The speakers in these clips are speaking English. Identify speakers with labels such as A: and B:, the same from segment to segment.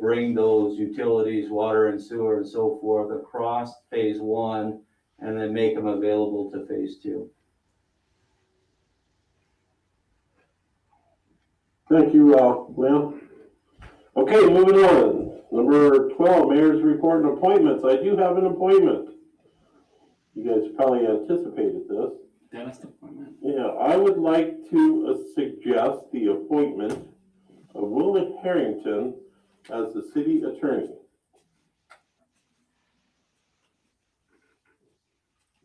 A: bring those utilities, water and sewer and so forth across phase one and then make them available to phase two.
B: Thank you, uh, Lynn. Okay, moving on. Number twelve, mayor's report and appointments. I do have an appointment. You guys probably anticipated this.
C: Dentist appointment.
B: Yeah, I would like to uh, suggest the appointment of Willie Harrington as the city attorney.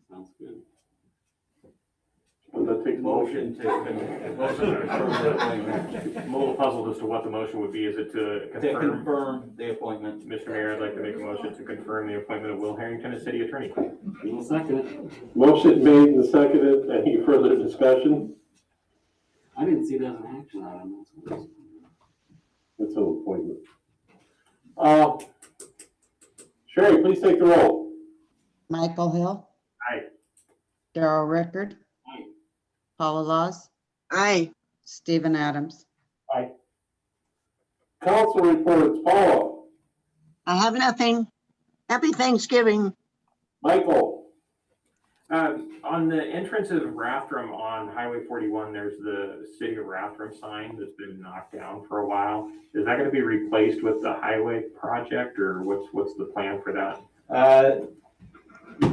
C: Sounds good.
B: Does that take a motion?
A: Motion to, motion to confirm the appointment,
D: I'm a little puzzled as to what the motion would be. Is it to
A: to
D: confirm?
A: confirm the appointment.
D: Mr. Mayor, I'd like to make a motion to confirm the appointment of Will Harrington as city attorney.
C: We'll second it.
B: Motion made and seconded. Any further discussion?
C: I didn't see that as an action item. That's what
B: It's an appointment. Uh, Sherry, please take the roll.
E: Michael Hill.
D: Aye.
E: Daryl Rickard.
C: Aye.
E: Paula Laws,
F: Aye,
E: Stephen Adams.
B: Council reports, Paula,
F: I have nothing. Happy Thanksgiving.
B: Michael.
D: Uh, on the entrance of Rathdrum on Highway forty-one, there's the city of Rathdrum sign that's been knocked down for a while. Is that gonna be replaced with the highway project or what's, what's the plan for that?
A: Uh,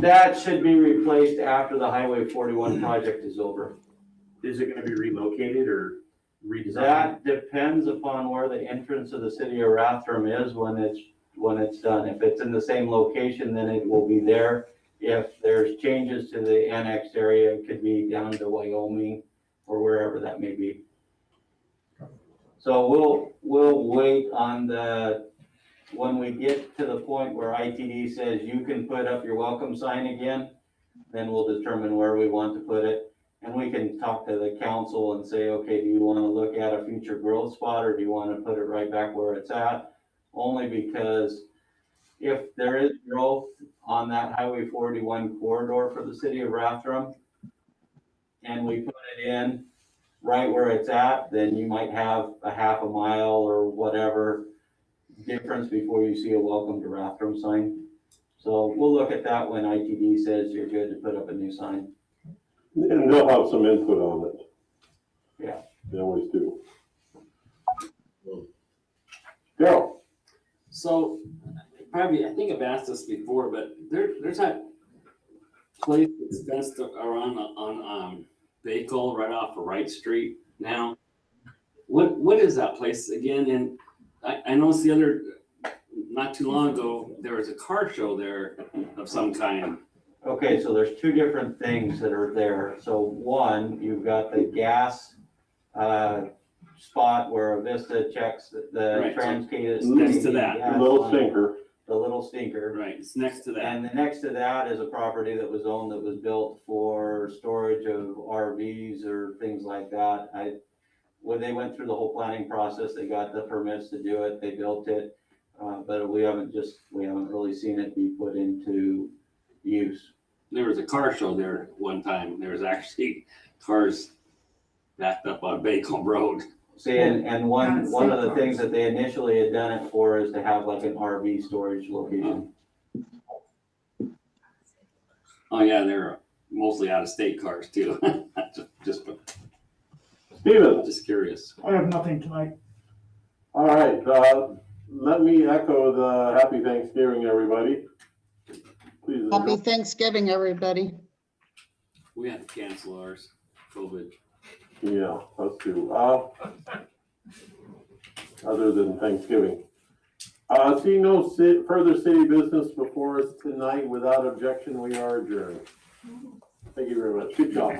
A: That should be replaced after the Highway forty-one project is over.
D: Is it gonna be relocated or redesigned?
A: That depends upon where the entrance of the city of Rathdrum is when it's, when it's done. If it's in the same location, then it will be there. If there's changes to the annexed area, it could be down to Wyoming or wherever that may be. So we'll, we'll wait on the, when we get to the point where ITD says you can put up your welcome sign again, then we'll determine where we want to put it. And we can talk to the council and say, okay, do you want to look at a future growth spot or do you want to put it right back where it's at? Only because if there is growth on that Highway forty-one corridor for the city of Rathdrum and we put it in right where it's at, then you might have a half a mile or whatever difference before you see a welcome to Rathdrum sign. So we'll look at that when ITD says you're good to put up a new sign.
B: And they'll have some input on it.
A: Yeah.
B: They always do. Daryl,
C: So probably, I think I've asked this before, but there, there's that place that's fenced around on, um, Bakel right off of Wright Street now. What, what is that place again? And I, I noticed the other, not too long ago, there was a car show there of some kind.
A: Okay, so there's two different things that are there. So one, you've got the gas uh, spot where Avista checks the- the
C: Right.
A: Transcade. is
C: Next to
A: taking
C: that.
A: gas
B: little
A: line,
B: sinker.
A: The little stinker.
C: Right, it's next to that.
A: And the next to that is a property that was owned that was built for storage of RVs or things like that. I, when they went through the whole planning process, they got the permits to do it, they built it. uh, But we haven't just, we haven't really seen it be put into use.
C: There was a car show there one time. There was actually cars backed up on Bacon Road.
A: See, and, and one,
G: Yeah,
A: one of the
G: safeguards.
A: things that they initially had done it for is to have like an RV storage
C: Um,
A: location.
C: Oh yeah, they're mostly out of state cars too. just,
B: Steven,
C: just curious.
G: I have nothing tonight.
B: all right, uh, let me echo the happy Thanksgiving, everybody. Please. enjoy.
E: Happy Thanksgiving, everybody.
C: We had to cancel ours, COVID.
B: Yeah, us too. Uh, other than Thanksgiving. Uh, see no ci- further city business before us tonight. Without objection, we are adjourned. Thank you very much. Good job.